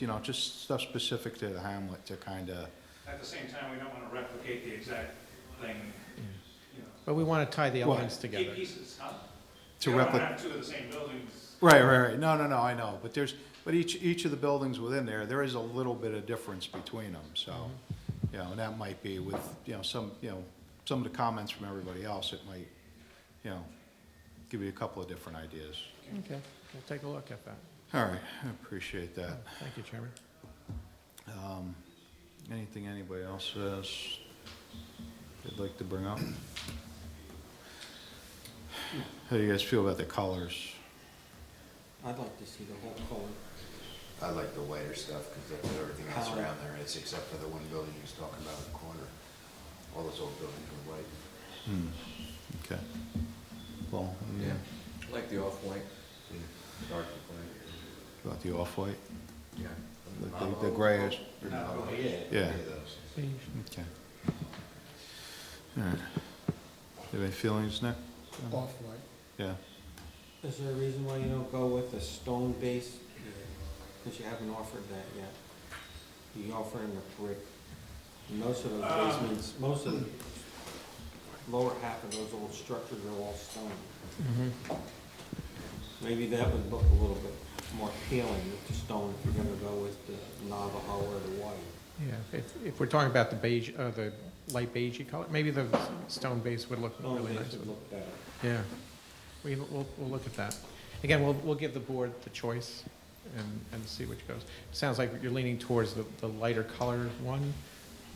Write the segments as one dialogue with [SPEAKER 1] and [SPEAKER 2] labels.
[SPEAKER 1] you know, just stuff specific to the hamlet to kind of,
[SPEAKER 2] At the same time, we don't want to replicate the exact thing, you know.
[SPEAKER 3] But we want to tie the
[SPEAKER 1] Well-
[SPEAKER 3] elements
[SPEAKER 2] Key
[SPEAKER 3] together.
[SPEAKER 2] pieces, huh?
[SPEAKER 1] to
[SPEAKER 2] You don't wanna
[SPEAKER 1] replicate.
[SPEAKER 2] have two of the same buildings.
[SPEAKER 1] Right, right, right. No, no, no, I know, but there's, but each, each of the buildings within there, there is a little bit of difference between them, so, you know, and that might be with, you know, some, you know, some of the comments from everybody else, it might, you know, give you a couple of different ideas.
[SPEAKER 3] Okay, we'll take a look at that.
[SPEAKER 1] All right, I appreciate that.
[SPEAKER 3] Thank you, Chairman.
[SPEAKER 1] Um, anything anybody else says they'd like to bring up? How do you guys feel about the colors?
[SPEAKER 4] I'd like to see the whole color.
[SPEAKER 5] I like the whiter stuff, because that's what everything else around there is, except for the one building he was talking about in the corner. All those old buildings are white.
[SPEAKER 1] Hmm, okay. Well, yeah.
[SPEAKER 4] Like the off-white.
[SPEAKER 5] Dark white.
[SPEAKER 1] About the off-white,
[SPEAKER 5] Yeah.
[SPEAKER 1] the- the- the grayish,
[SPEAKER 5] Oh, yeah.
[SPEAKER 1] Yeah.
[SPEAKER 5] those.
[SPEAKER 1] okay. All right. You have any feelings, Nick?
[SPEAKER 6] Off-white.
[SPEAKER 1] Yeah,
[SPEAKER 4] Is there a reason why you don't go with a stone base? Because you haven't offered that yet. You offering a brick. Most of those
[SPEAKER 2] Um,
[SPEAKER 4] basements, most of the lower half of those old structures are all stone. Mm-hmm. Maybe that would look a little bit more appealing with the stone if you're gonna go with the Navajo or the white.
[SPEAKER 3] Yeah, if, if we're talking about the beige, uh, the light beigey color, maybe the stone base would look
[SPEAKER 4] Stone
[SPEAKER 3] really
[SPEAKER 4] base
[SPEAKER 3] nice.
[SPEAKER 4] would
[SPEAKER 3] with-
[SPEAKER 4] look better.
[SPEAKER 3] Yeah, we, we'll, we'll look at that. Again, we'll, we'll give the board the choice and, and see which goes. Sounds like you're leaning towards the, the lighter color one,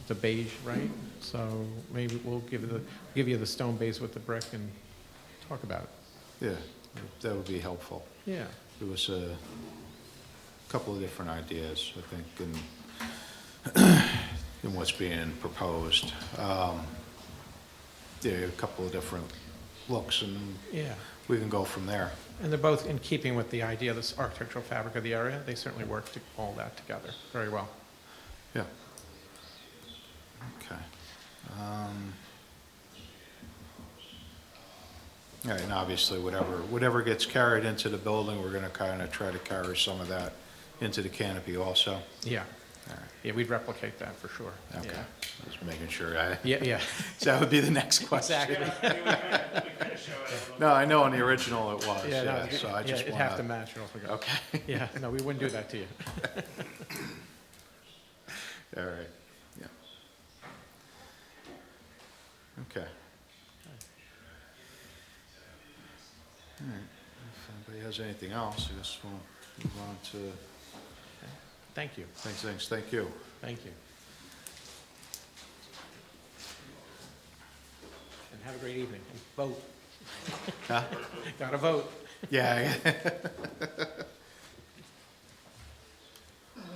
[SPEAKER 3] the beige, right? So maybe we'll give the, give you the stone base with the brick and talk about it.
[SPEAKER 1] yeah, that would be helpful.
[SPEAKER 3] Yeah.
[SPEAKER 1] There was a couple of different ideas, I think, in, in what's being proposed. Um, There are a couple of different looks, and
[SPEAKER 3] Yeah.
[SPEAKER 1] we can go from there.
[SPEAKER 3] And they're both in keeping with the idea of this architectural fabric of the area. They certainly work to all that together very well.
[SPEAKER 1] Yeah. Okay. Um, All right, and obviously, whatever, whatever gets carried into the building, we're gonna kinda try to carry some of that into the canopy also.
[SPEAKER 3] Yeah.
[SPEAKER 1] All right.
[SPEAKER 3] Yeah, we'd replicate that for sure.
[SPEAKER 1] Okay, just making sure I,
[SPEAKER 3] Yeah, yeah.
[SPEAKER 1] so that would be the next question.
[SPEAKER 3] Exactly.
[SPEAKER 2] Yeah, we kinda- we kinda show it a little
[SPEAKER 1] No, I know on the original it was,
[SPEAKER 3] Yeah, no,
[SPEAKER 1] yeah,
[SPEAKER 3] it's-
[SPEAKER 1] Oh, so I
[SPEAKER 3] yeah,
[SPEAKER 1] just
[SPEAKER 3] It'd have to
[SPEAKER 1] wanna,
[SPEAKER 3] match or else we go.
[SPEAKER 1] okay,
[SPEAKER 3] Yeah, no, we wouldn't do that to you.
[SPEAKER 1] all right, yeah. Okay. All right, if anybody has anything else, I guess we'll move on to,
[SPEAKER 3] Thank you,
[SPEAKER 1] thanks, thanks, thank you.
[SPEAKER 3] thank you. And have a great evening. And Vote.
[SPEAKER 1] Huh?
[SPEAKER 3] Gotta vote.
[SPEAKER 1] Yeah, all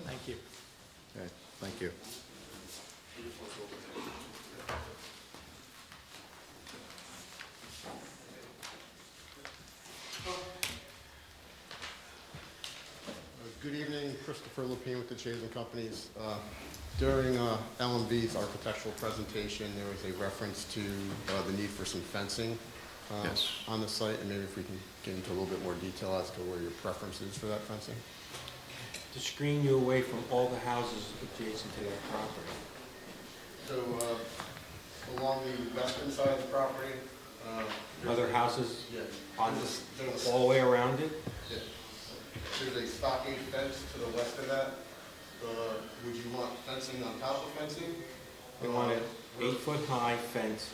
[SPEAKER 3] Thank you.
[SPEAKER 1] right, thank you.
[SPEAKER 7] Uh, Good evening, Christopher Lepine with the Chase and Companies. Uh, During uh, LMV's architectural presentation, there was a reference to uh, the need for some fencing uh,
[SPEAKER 1] Yes.
[SPEAKER 7] on the site, and maybe if we can get into a little bit more detail as to where your preference is for that fencing?
[SPEAKER 4] To screen you away from all the houses adjacent to that property.
[SPEAKER 7] So uh, along the western side of the property? uh,
[SPEAKER 4] Other houses
[SPEAKER 7] Yeah.
[SPEAKER 4] on this, all the way around it?
[SPEAKER 7] There's a stockade fence to the west of that. Would you want fencing on top of fencing?
[SPEAKER 4] We want an eight-foot-high fence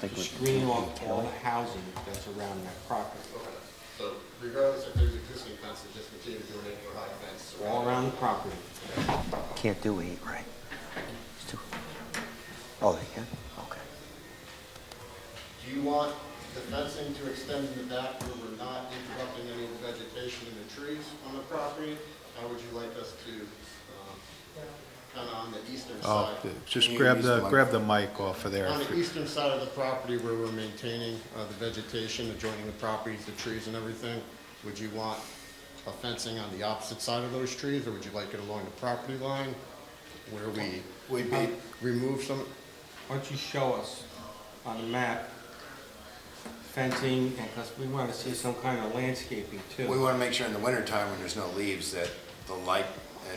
[SPEAKER 4] to screen off all the housing that's around that property.
[SPEAKER 7] Okay, so regardless if there's existing fences, just continue to do an eight-foot high fence.
[SPEAKER 4] All around the property.
[SPEAKER 8] Can't do eight, right? It's too- Oh, they can? Okay.
[SPEAKER 7] Do you want the fencing to extend in the back where we're not interrupting any of the vegetation and the trees on the property? How would you like us to, um, kind of on the eastern
[SPEAKER 1] Oh,
[SPEAKER 7] side?
[SPEAKER 1] just grab the, grab the mic off of there.
[SPEAKER 7] On the eastern side of the property where we're maintaining uh, the vegetation adjoining the properties, the trees and everything, would you want a fencing on the opposite side of those trees, or would you like it along the property line where we
[SPEAKER 5] We'd be,
[SPEAKER 7] remove some,
[SPEAKER 4] Why don't you show us on the map fencing, and, because we want to see some kind of landscaping
[SPEAKER 5] we
[SPEAKER 4] too.
[SPEAKER 5] want to make sure in the wintertime when there's no leaves that the light